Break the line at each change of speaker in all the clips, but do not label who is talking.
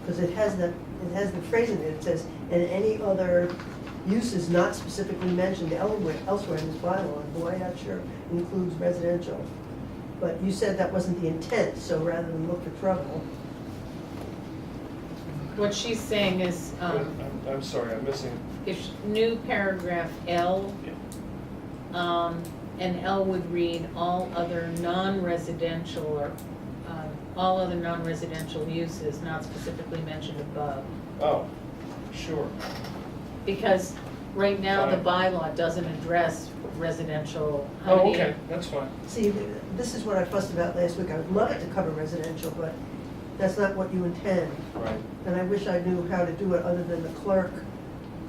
because it has the, it has the phrase in it, it says, and any other use is not specifically mentioned elsewhere, elsewhere in this bylaw, and boy, that sure includes residential. But you said that wasn't the intent, so rather than look for trouble,
What she's saying is, um,
I'm, I'm sorry, I'm missing,
if new paragraph L, um, and L would read all other non-residential or, um, all other non-residential uses not specifically mentioned above.
oh, sure,
Because right now, the bylaw doesn't address residential, how many
oh, okay, that's fine.
See, th- this is what I fussed about last week. I would love it to cover residential, but that's not what you intend.
Right.
And I wish I knew how to do it other than the clerk.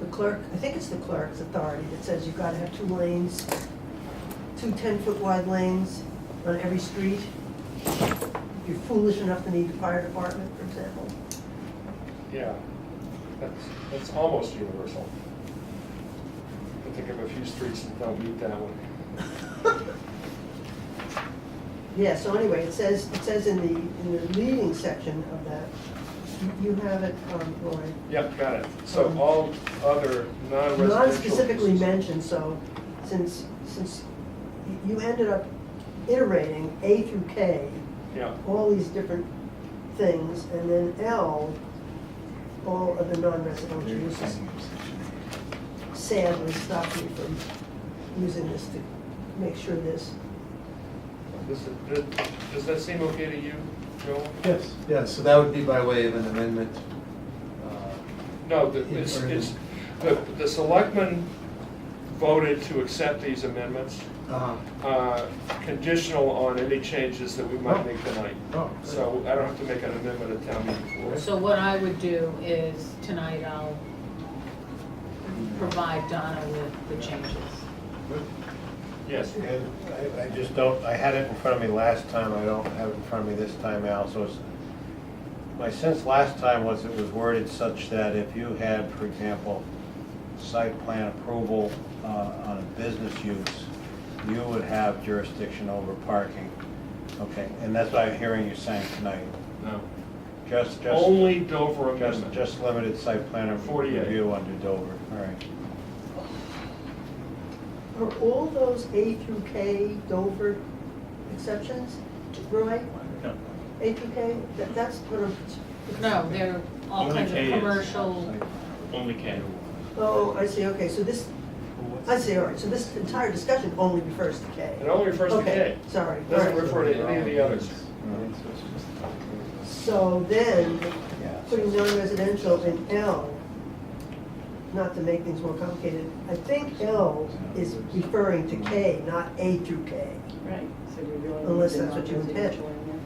The clerk, I think it's the clerk's authority that says you've got to have two lanes, two 10-foot wide lanes on every street. If you're foolish enough to need the fire department, for example.
Yeah, that's, that's almost universal. I think of a few streets that don't meet that one.
Yeah, so anyway, it says, it says in the, in the leading section of that, you- you have it, um, Lori.
Yep, got it. So
Um,
all other non-residential.
Not specifically
uses-
mentioned, so since, since y- you ended up iterating A through K,
Yeah,
all these different things, and then L, all other non-residential uses. Sadly stopped me from using this to make sure this,
does, it- does- does that seem okay to you, Joel?
Yes, yeah, so that would be by way of an amendment. uh,
No, the,
In
it's,
further-
it's, the, the selectmen voted to accept these amendments,
uh,
uh, conditional on any changes that we might make tonight.
Oh, good.
So I don't have to make an amendment at town meeting floor.
So what I would do is, tonight I'll provide Donna with the changes.
Yes,
And I, I just don't, I had it in front of me last time, I don't have it in front of me this time, Al, so it's, my sense last time was it was worded such that if you had, for example, site plan approval uh, on a business use, you would have jurisdiction over parking. Okay, and that's what I'm hearing you saying tonight.
no.
Just, just.
Only Dover
Just,
amendment.
just limited site plan
Forty-eight.
review under Dover, all right.
are all those A through K Dover exceptions, right?
No.
A through K, That- that's what I'm.
No, they're all
Only
kinds
K
of
is-
commercial,
Site-
Only K.
Oh, I see, okay, so this, I see, all right, so this entire discussion only refers to K.
It only refers to
Okay,
K.
Sorry, all
Doesn't
right.
refer to any of the others.
no.
So then,
Yeah.
putting non-residential in L, not to make things more complicated, I think L is referring to K, not A through K.
Right. So you're really.
Unless that's what you
using
intend.
non-residential in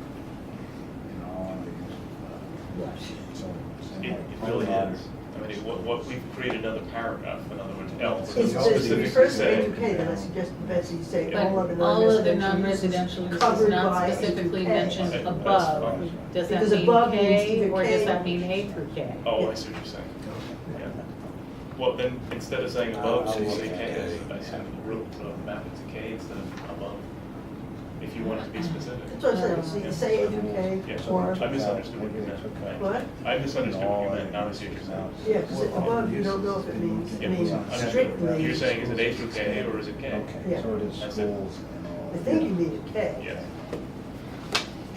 there.
in all of these, uh,
It it really is. I mean, it- what, what, we've created another paragraph, in other words, else.
It's- It's it
specifically
refers to A
saying-
through K, then I suggest, Betsy, you say
but
all other
all of the
non-residential
non-residential
uses
uses
covered
not
by A through
specifically
K.
mentioned
Okay, that's
above.
fine.
Does that
Because above
mean
means
K,
either
or
K
does
or-
that mean A through K?
Oh, I see what you're saying. Yeah. Well, then, instead of saying above,
I'll
should you
look
say
at
K?
it.
I should have wrote the map into K instead of above, if you want it to be specific.
That's what I'm saying, so you
Um,
say A through K,
Yeah,
or,
I misunderstood what you meant.
what?
I misunderstood what you meant, now I see what you're saying.
Yeah, because above, you don't know if it means,
Yeah,
I mean,
understood.
strictly.
You're saying, is it A through K or is it K?
Okay, so it is
That's it.
schools and all.
I think you mean K.
Yes.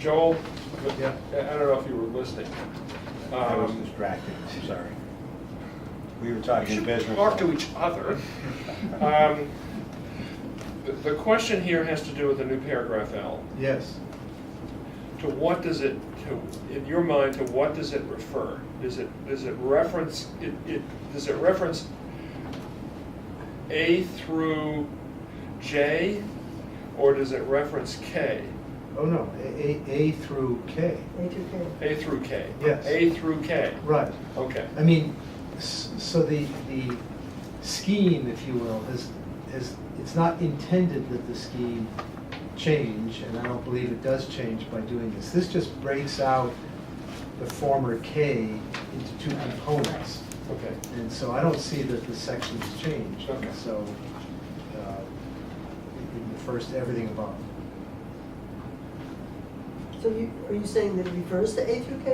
Joel,
Yeah.
I I don't know if you were listening.
I was
Um,
distracted, I'm sorry. We were
You
talking
should
business. Uh,
talk to each other. Um, the- The question here has to do with the new paragraph L.
Yes,
To what does it, to, in your mind, to what does it refer? Does it, does it reference, it, it, does it reference A through J? Or does it reference K?
oh no, A, A- A through K,
A through K.
A through K?
Yes.
A through K?
right.
Okay.
I mean, s- so the, the scheme, if you will, is, is, it's not intended that the scheme change, and I don't believe it does change by doing this. This just breaks out the former K into two components.
Okay.
And so I don't see that the section's changed.
Okay.
So uh, it it refers to everything above.
So you, are you saying that it refers to A through K